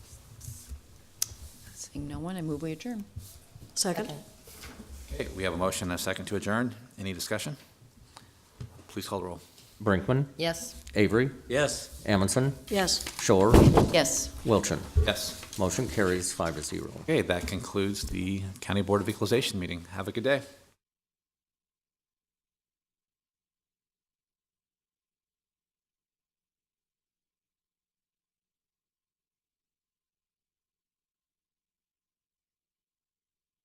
Seeing no one, I move we adjourn. Second? Okay, we have a motion and a second to adjourn. Any discussion? Please call the roll. Brinkman, Yes. Avery, Yes. Amundson, Yes. Shore, Yes. Wilchin. Yes. Motion carries five to zero. Okay, that concludes the County Board of Equalization meeting. Have a good day.